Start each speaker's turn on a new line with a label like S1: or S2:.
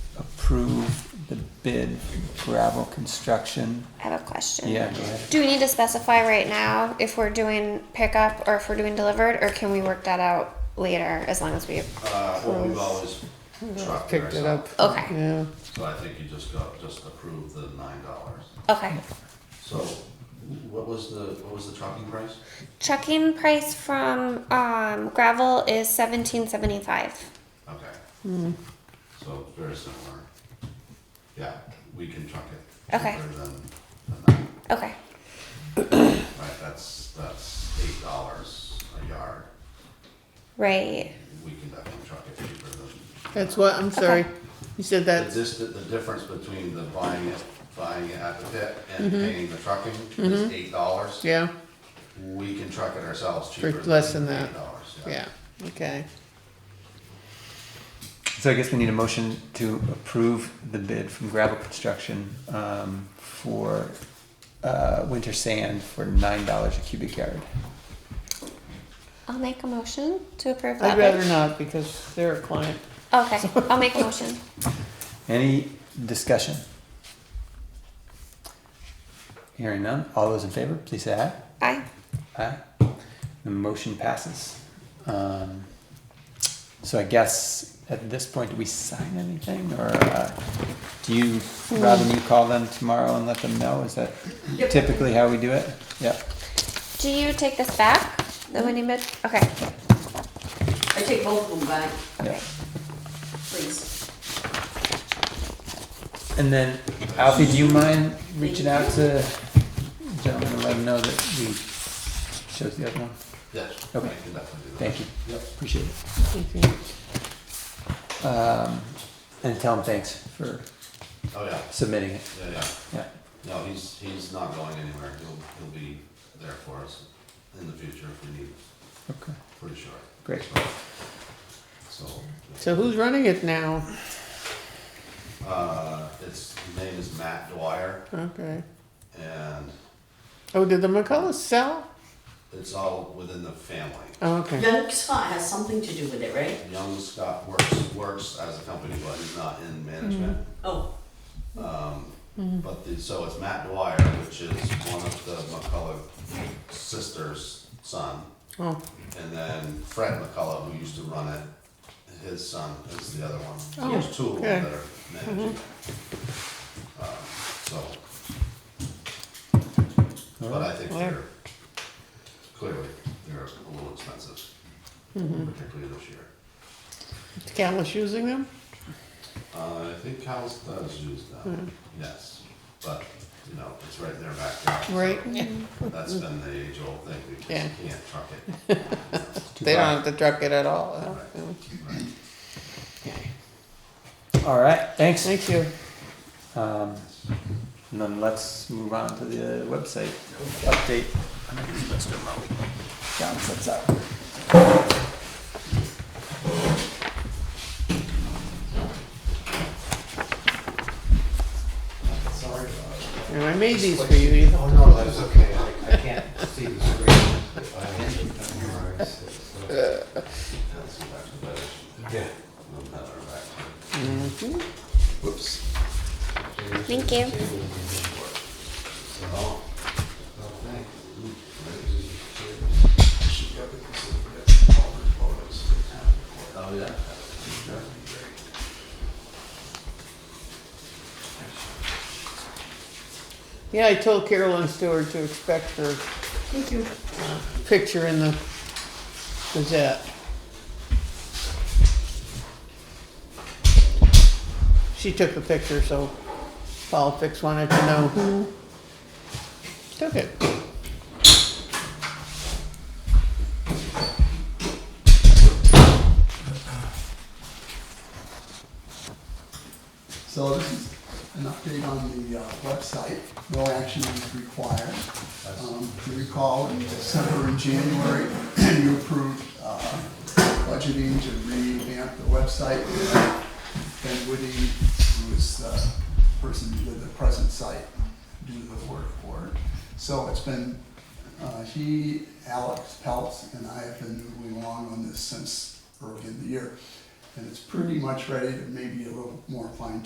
S1: approve the bid for gravel construction.
S2: I have a question.
S1: Yeah, go ahead.
S2: Do we need to specify right now if we're doing pickup or if we're doing delivered, or can we work that out later as long as we?
S3: Uh, well, we've always trucked it
S4: Picked it up.
S3: ourselves,
S2: Okay.
S4: Yeah,
S3: so I think you just got, just approved the nine dollars.
S2: Okay.
S3: So, what was the, what was the trucking price?
S2: Trucking price from um, gravel is seventeen seventy five.
S3: Okay.
S4: Hmm.
S3: So, very similar. Yeah, we can truck it.
S2: Okay.
S3: cheaper Than, than that.
S2: Okay.
S3: Right, that's, that's eight dollars a yard.
S2: Right.
S3: We can definitely truck it cheaper than.
S4: that's what, I'm sorry. You said
S3: The
S4: that,
S3: dis- the difference between the buying it, buying it at the pit and
S4: Mm-hmm.
S3: paying the trucking is eight dollars.
S4: yeah,
S3: We can truck it ourselves cheaper.
S4: less than that.
S3: $8,
S4: yeah, okay.
S1: So I guess we need a motion to approve the bid from gravel construction um, for uh, winter sand for nine dollars a cubic yard.
S2: I'll make a motion to approve that.
S4: I'd rather not because they're a client.
S2: Okay. I'll make a motion.
S1: Any discussion? Hearing none, all those in favor, please say aye.
S2: Aye.
S1: Aye. The motion passes. Um, So I guess at this point, do we sign anything or uh, do you, Robin, you call them tomorrow and let them know? Is that typically how we do it? Yep.
S2: Do you take this back? The winning bid. Okay.
S5: I take both of them back,
S1: yep.
S5: please.
S1: And then Alfie, do you mind reaching out to the gentleman and let him know that we chose the other one?
S3: Yes, I can
S1: Okay.
S3: definitely do that.
S1: Thank you.
S3: Yep.
S1: Appreciate it.
S4: Thank you.
S1: Um, And tell him thanks for
S3: Oh, yeah,
S1: submitting it.
S3: yeah, yeah.
S1: Yeah.
S3: No, he's, he's not going anywhere. He'll, he'll be there for us in the future if we need,
S1: Okay.
S3: pretty sure.
S1: Great.
S3: So,
S4: So who's running it now?
S3: uh, his name is Matt Dwyer
S4: Okay.
S3: and
S4: Oh, did the McCullough sell?
S3: it's all within the family.
S4: Oh, okay.
S5: Young Scott has something to do with it, right?
S3: Young Scott works, works as a company, but he's not in management.
S5: Oh,
S3: But the, so it's Matt Dwyer, which is one of the McCullough sisters' son.
S4: Oh,
S3: And then Fred McCullough, who used to run it, his son is the other one. So there's two of them that are managing. Um, So, but I think they're, clearly, they're a little expensive, particularly this year.
S4: is Callis using them?
S3: Uh, I think Cal's does use them, yes, but, you know, it's right in their backyard. so
S4: Right?
S3: That's been the age-old thing, we just
S4: Yeah.
S3: can't truck it.
S4: They don't have to truck it at all. huh?
S3: Right, right.
S4: Okay.
S1: All right, thanks.
S4: Thank you.
S1: Um, and then let's move on to the uh, website update. John sets up.
S6: Sorry about it.
S4: And I made these for you, Ethan.
S6: Oh, no, that's okay, I, I can't see the screen. I- I'm all right, so-
S3: That's back to better,
S6: Yeah.
S3: we'll have our back to it. Whoops.
S2: Thank you.
S3: So, oh, yeah.
S4: Yeah, I told Carolyn Stewart to expect her uh, picture in the Gazette. She took the picture, so Paul Fix wanted to know who took it.
S7: So this is an update on the uh, website, no action is required. Um, If you recall, in December and January, you approved uh, budgeting to revamp the website. Ben Woody, who is the person who did the present site, do the work for it. So it's been, uh, he, Alex Peltz, and I have been moving along on this since early in the year. And it's pretty much ready, maybe a little more fine